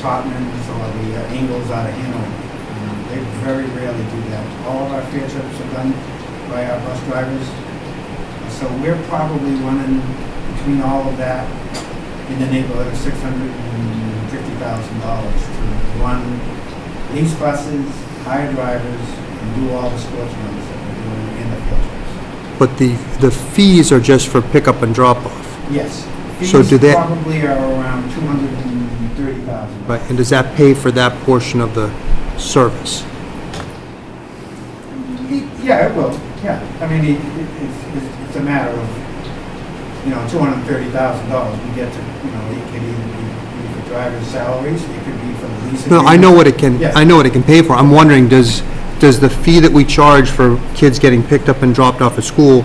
Tottenham or the uh, Ingles out of Hanover. Um, They very rarely do that. All of our field trips are done by our bus drivers. So we're probably running between all of that in the neighborhood of six hundred and fifty thousand dollars to run these buses, hire drivers, and do all the sports runs that we're doing in the field trips. But the, the fees are just for pickup and drop-off, Yes. So do Fees they- probably are around two hundred and thirty thousand. right? And does that pay for that portion of the service? Yeah, it will, yeah. I mean, it- it- it's, it's- it's a matter of, you know, two hundred and thirty thousand dollars we get to, you know, it could either be be for driver's salaries, it could be for the lease. No, I know agreement. what it can, Yes. I know what it can pay for. I'm wondering, does, does the fee that we charge for kids getting picked up and dropped off at school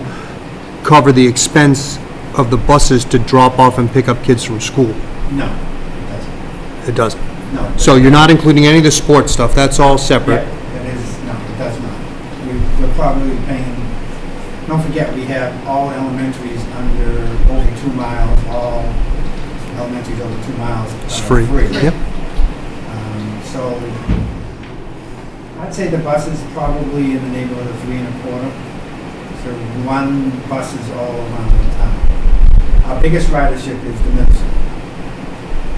cover the expense of the buses to drop off and pick up kids from school? No, it doesn't, It doesn't. no. So you're not including any of the sports stuff, that's all Yeah, separate? it is, no, it does not. We- We're probably paying, don't forget, we have all elementaries under over two miles, all elementaries over two miles. It's are free. Yep. Um, So I'd say the bus is probably in the neighborhood of three and a quarter. So one bus is all around the town. Our biggest ridership is the middle school.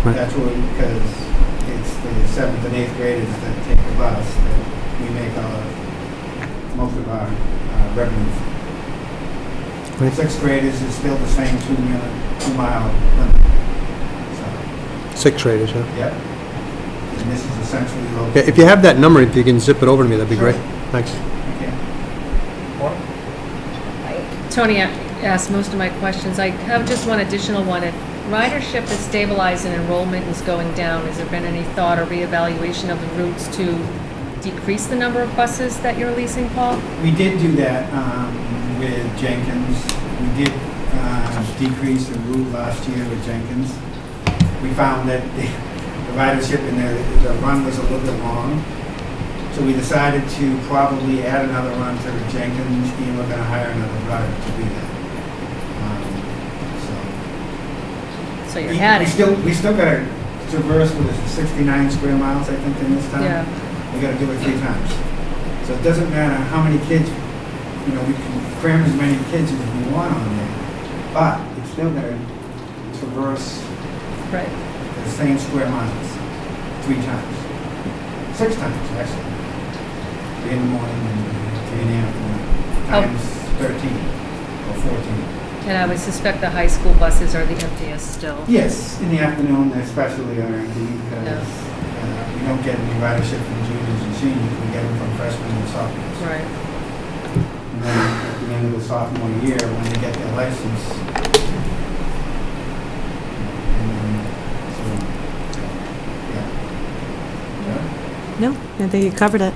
Right. That's where, because it's the seventh and eighth graders that take the bus, that we make our, most of our uh, revenue. from. Right. Sixth graders is still the same two minute, two mile limit. So, Sixth graders, yeah. Yep. And this is essentially local. Yeah, If you have that number, if you can zip it over to me, that'd be Sure. great. Thanks. Okay. Tony a- asked most of my questions. I have just one additional one. If ridership is stabilized and enrollment is going down, has there been any thought or reevaluation of the routes to decrease the number of buses that you're leasing, Paul? We did do that um, with Jenkins. We did uh, decrease the route last year with Jenkins. We found that the the ridership in there, the run was a little bit long. So we decided to probably add another run to Jenkins and we're going to hire another driver to do that. Um, so- So you We- had We it. still, we still got to traverse with 69 square miles, I think, in this town Yeah, we gotta do it three times. So it doesn't matter how many kids, you know, we can cram as many kids as we want on there, but it's still gonna traverse right. the same square miles three times, six times, actually. Three in the morning and three in the afternoon, Oh. times 13 or 14. And I would suspect the high school buses are the emptiest still. Yes, in the afternoon especially are empty Yeah. because uh, Oh. we don't get any ridership from juniors and seniors, we get them from freshmen and sophomores. Right. And then at the end of the sophomore year, when they get their license. And then, so, yeah. Yeah. No, I think you covered it.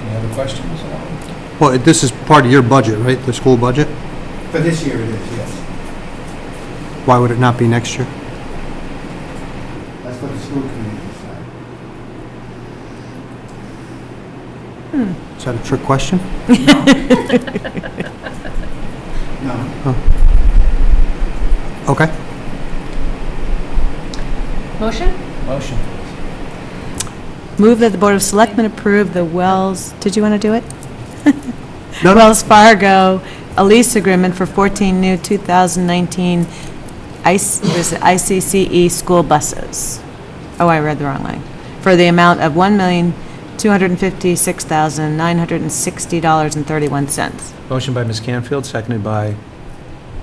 Any other questions? Well, this is part of your budget, right? The school budget? For this year it is, yes. Why would it not be next year? That's what the school committee decided. Is that a trick question? No, Okay. Motion? Motion. Move that the Board of Selectmen approve the Wells, did you want to do it? No, no, Wells Fargo, a lease agreement for 14 new 2019 IC was it ICCE E school buses. Oh, I read the wrong line. For the amount of $1,256,960.31. Motion by Ms. Canfield, seconded by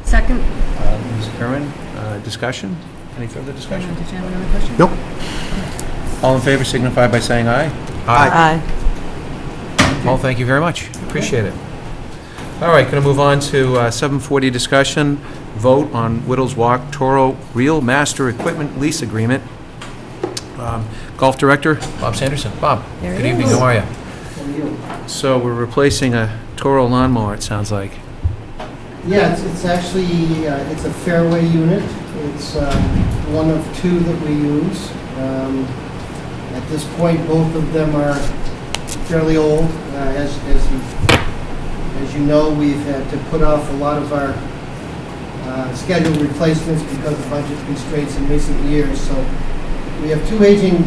Second? uh, Ms. Curran. Uh, Discussion? Any further Did you discussion? have another question? Nope. All in favor signify by saying aye. Aye. Paul, thank you very much. Appreciate it. All right, going to move on to uh, 740 discussion, vote on Whittles Walk Toro Real Master Equipment Lease Agreement. Um, Golf Director, Bob Sanderson. Bob, There good it evening, is. how are you? So we're replacing a Toro lawnmower, it sounds like. Yeah, it's, it's actually, uh, it's a fairway unit. It's um, one of two that we use. Um, At this point, both of them are fairly old. Uh, As, as you, as you know, we've had to put off a lot of our uh, scheduled replacements because of budget constraints in recent years. So we have two aging